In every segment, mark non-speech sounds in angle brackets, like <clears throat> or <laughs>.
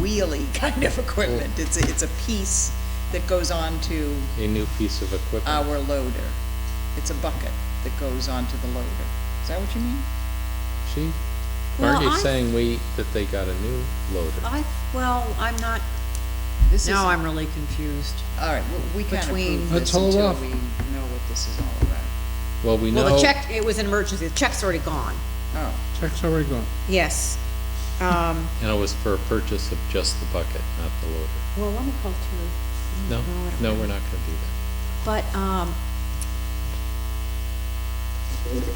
wheelie <laughs> kind of equipment. Mm. It's, a- it's a piece that goes on to a new piece of equipment. Uh, our loader. It's a bucket that goes on to the loader. Is that what you mean? She, Well, Marty's I- saying we, that they got a new loader. I, well, I'm not, This is- now I'm really confused. All right, well, we can't Between- approve this Let's hold until off. we know what this is all about. Well, we know. Well, the check, it was an emergency, the check's already gone, Oh, Check's already gone. yes. Um, And it was for a purchase of just the bucket, not the loader. well, let me call through. No, I don't- no, we're not gonna do that. But, um,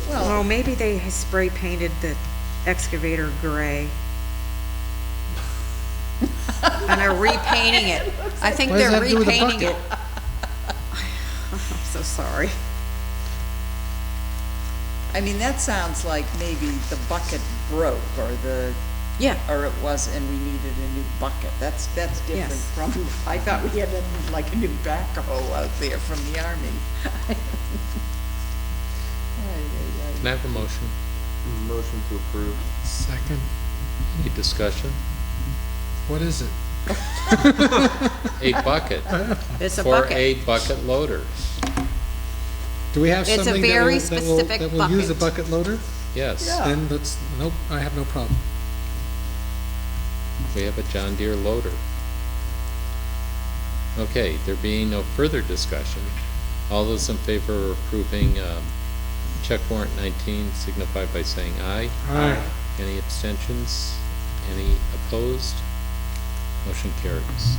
well, well, maybe they spray painted the excavator gray. And are repainting it. I think What does they're that do with the repainting bucket? it. <laughs> I'm so sorry. I mean, that sounds like maybe the bucket broke or the, Yeah, or it was, and we needed a new bucket. That's, that's different Yes. from, I thought we had a- like a new backhoe out there from the army. Ay, ay, Can I have a motion? Motion to approve. Second, Any discussion? what is it? <laughs> A bucket, it's a for bucket. a bucket loader, Do we have It's a something that very will, that will, specific that will use a bucket. bucket loader? yes. Yeah. Then let's, nope, I have no problem. We have a John Deere loader. Okay, there being no further discussion, all those in favor of approving, um, check warrant nineteen signify by saying aye. Aye. Any abstentions? Any opposed? Motion carries.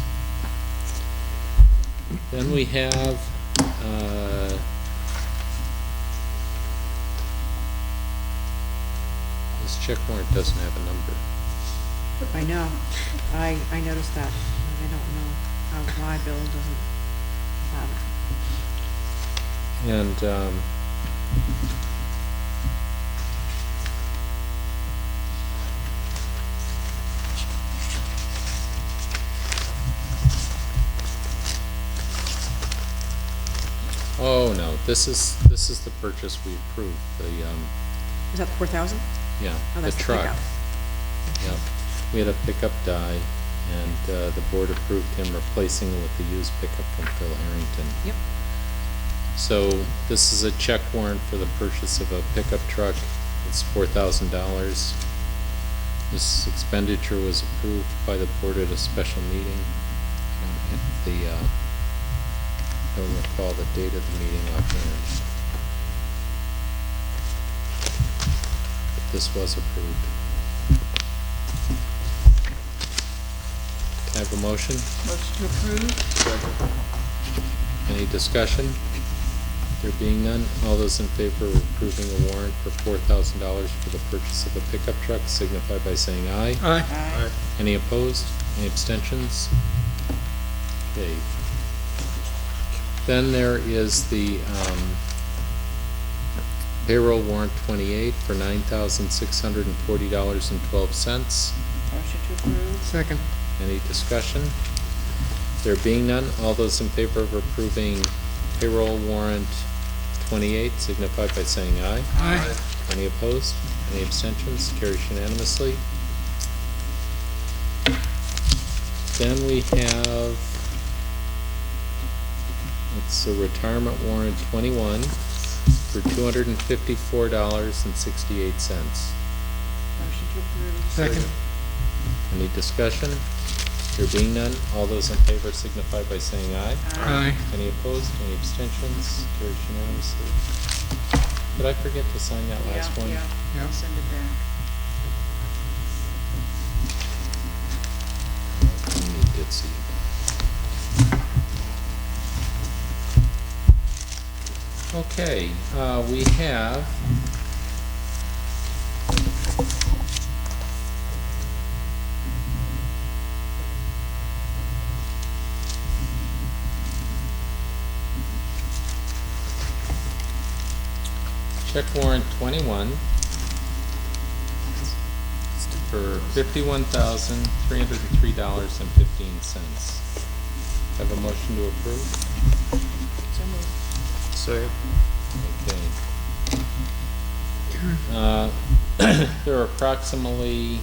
Then we have, uh, this check warrant doesn't have a number. I know. I, I noticed that. I don't know how, why Bill doesn't have And, it. um, oh, no, this is, this is the purchase we approved, the, um, Is that four thousand? yeah, Oh, the that's the truck. pickup. Yeah, we had a pickup die, and, uh, the board approved him replacing it with the used pickup from Phil Harrington. Yep. So this is a check warrant for the purchase of a pickup truck. It's four thousand dollars. This expenditure was approved by the board at a special meeting. I don't have the, uh, don't recall the date of the meeting offhand. But this was approved. Can I have a motion? ay. Motion to approve? Any discussion? There being none, all those in favor of approving a warrant for four thousand dollars for the purchase of a pickup truck signify by saying aye. Aye. Aye. Any opposed? Any abstentions? Okay. Then there is the um, payroll warrant twenty-eight for nine thousand six hundred and forty dollars and twelve cents. Motion to approve? Second, Any discussion? There being none, all those in favor of approving payroll warrant twenty-eight signify by saying aye. aye. Any opposed? Any abstentions? Carries unanimously. Then we have, it's a retirement warrant twenty-one for two hundred and fifty-four dollars and sixty-eight cents. Motion to approve. Second, Any discussion? There being none, all those in favor signify by saying aye. aye. Any opposed, any abstentions? Carries unanimously. Did I forget to sign that Yeah, last one? yeah, Yeah. I'll send it back. Only did see. Okay, uh, we have check warrant twenty-one for fifty-one thousand, three hundred and three dollars and fifteen cents. Have a motion to approve? Second. <clears throat> Okay. Uh, There are approximately